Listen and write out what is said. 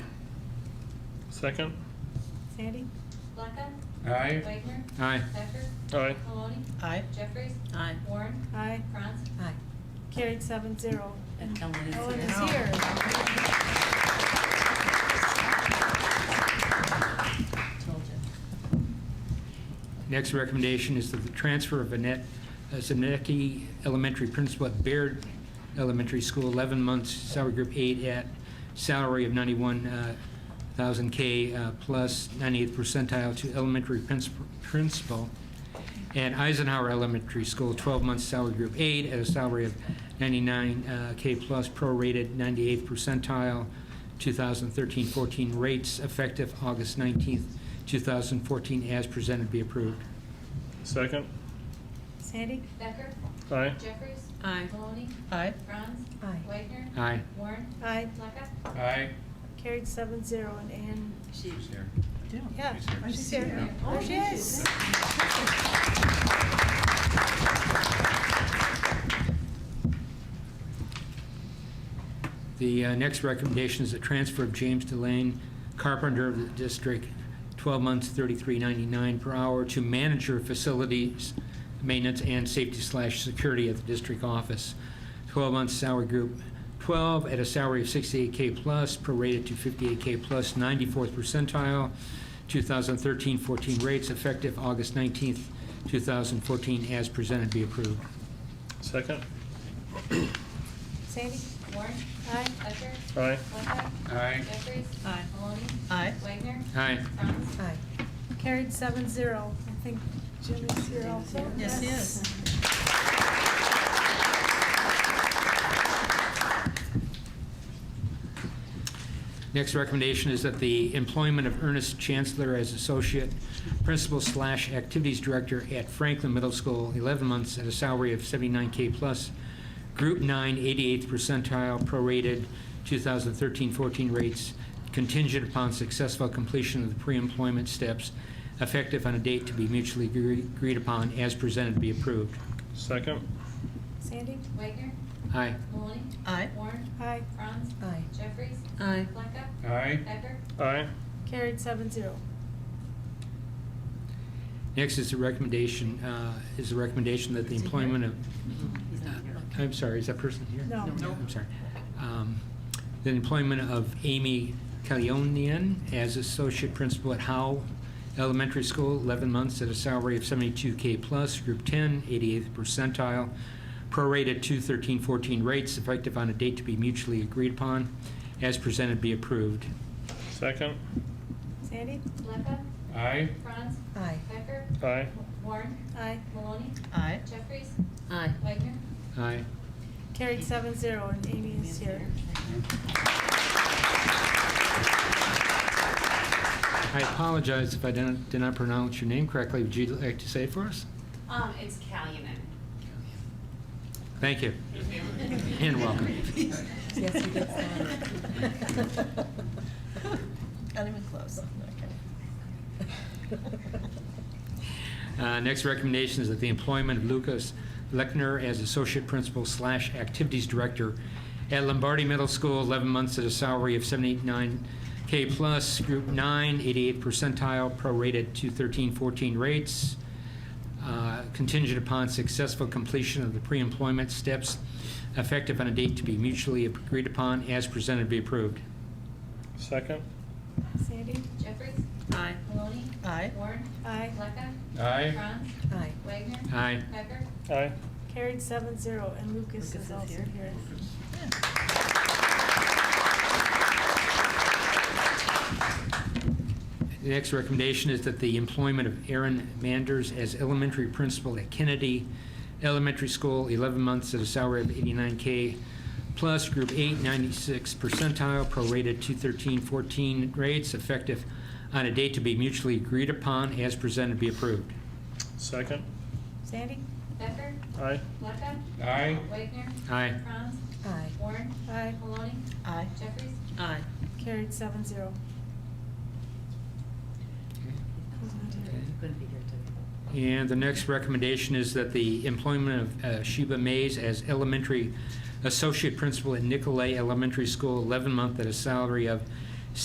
Second? Sandy? Blackout? Aye. Wagner? Aye. Becker? Aye. Maloney? Aye. Jeffries? Aye. Warren? Aye. Franz? Aye. Carried seven zero. And Ellen is Ellen here. is here. Told you. Next recommendation is that the transfer of Annette uh, Zemecki, elementary principal at Baird Elementary School, 11 months, salary group eight, at salary of 91,000 K uh, plus 98th percentile to elementary princip- principal at Eisenhower Elementary School, 12 months, salary group eight, at a salary of 99 K plus prorated 98th percentile 2013-14 rates effective August 19th, 2014, as presented, be approved. Second? Sandy? Becker? Aye. Jeffries? Aye. Maloney? Aye. Franz? Aye. Wagner? Aye. Warren? Aye. Blackout? Aye. Carried seven zero. And Ann, She's here. yeah, She's here. she's here. Oh, she is. The uh, next recommendation is the transfer of James Delane Carpenter of the district, 12 months, 33.99 per hour, to manager of facilities, maintenance, and safety slash security at the district office. 12 months salary group 12 at a salary of 68K plus, prorated to 58K plus 94th percentile, 2013-14 rates effective August 19th, 2014, as presented, be approved. Second? Sandy? Warren? Aye. Becker? Aye. Blackout? Aye. Jeffries? Aye. Maloney? Aye. Wagner? Aye. Franz? Aye. Carried seven zero. I think Jim is here also. Yes, he is. Next recommendation is that the employment of Ernest Chancellor as Associate Principal slash Activities Director at Franklin Middle School, 11 months at a salary of 79K plus, Group 9, 88th percentile, prorated 2013-14 rates, contingent upon successful completion of the pre-employment steps, effective on a date to be mutually agree- agreed upon, as presented, be approved. Second? Sandy? Wagner? Aye. Maloney? Aye. Warren? Aye. Franz? Aye. Jeffries? Aye. Blackout? Aye. Becker? Aye. Carried seven zero. Next is the recommendation, uh, is the recommendation that the Is he here? employment of uh, He's not here. I'm sorry, is that person here? No. No. I'm sorry. Um, The employment of Amy Calionian as associate principal at Howe Elementary School, 11 months at a salary of 72K plus, Group 10, 88th percentile, prorated to 13-14 rates, effective on a date to be mutually agreed upon, as presented, be approved. Second? Sandy? Blackout? Aye. Franz? Aye. Becker? Aye. Warren? Aye. Maloney? Aye. Jeffries? Aye. Wagner? Aye. Carried seven zero. And Amy is here. I apologize if I didn't- did not pronounce your name correctly. Would you like to say it for us? Um, it's Calumet. Thank you. And welcome. Yes, he did say that. Not even close. Uh, Next recommendation is that the employment of Lucas Lechner as Associate Principal slash Activities Director at Lombardi Middle School, 11 months at a salary of 789K plus, Group 9, 88th percentile, prorated to 13-14 rates, uh, contingent upon successful completion of the pre-employment steps, effective on a date to be mutually agreed upon, as presented, be approved. Second? Sandy? Jeffries? Aye. Maloney? Aye. Warren? Aye. Blackout? Aye. Franz? Aye. Wagner? Aye. Becker? Aye. Carried seven zero. And Lucas is Lucas is also here. here. The next recommendation is that the employment of Aaron Manders as elementary principal at Kennedy Elementary School, 11 months at a salary of 89K plus, Group 8, 96 percentile, prorated 213-14 rates, effective on a date to be mutually agreed upon, as presented, be approved. Second? Sandy? Becker? Aye. Blackout? Aye. Wagner? Aye. Franz? Aye. Warren? Aye. Maloney? Aye. Jeffries? Aye. Carried seven zero. Who's not here? Couldn't be here today. And the next recommendation is that the employment of uh, Sheba Mays as elementary associate principal at Nicolay Elementary School, 11 month at a salary of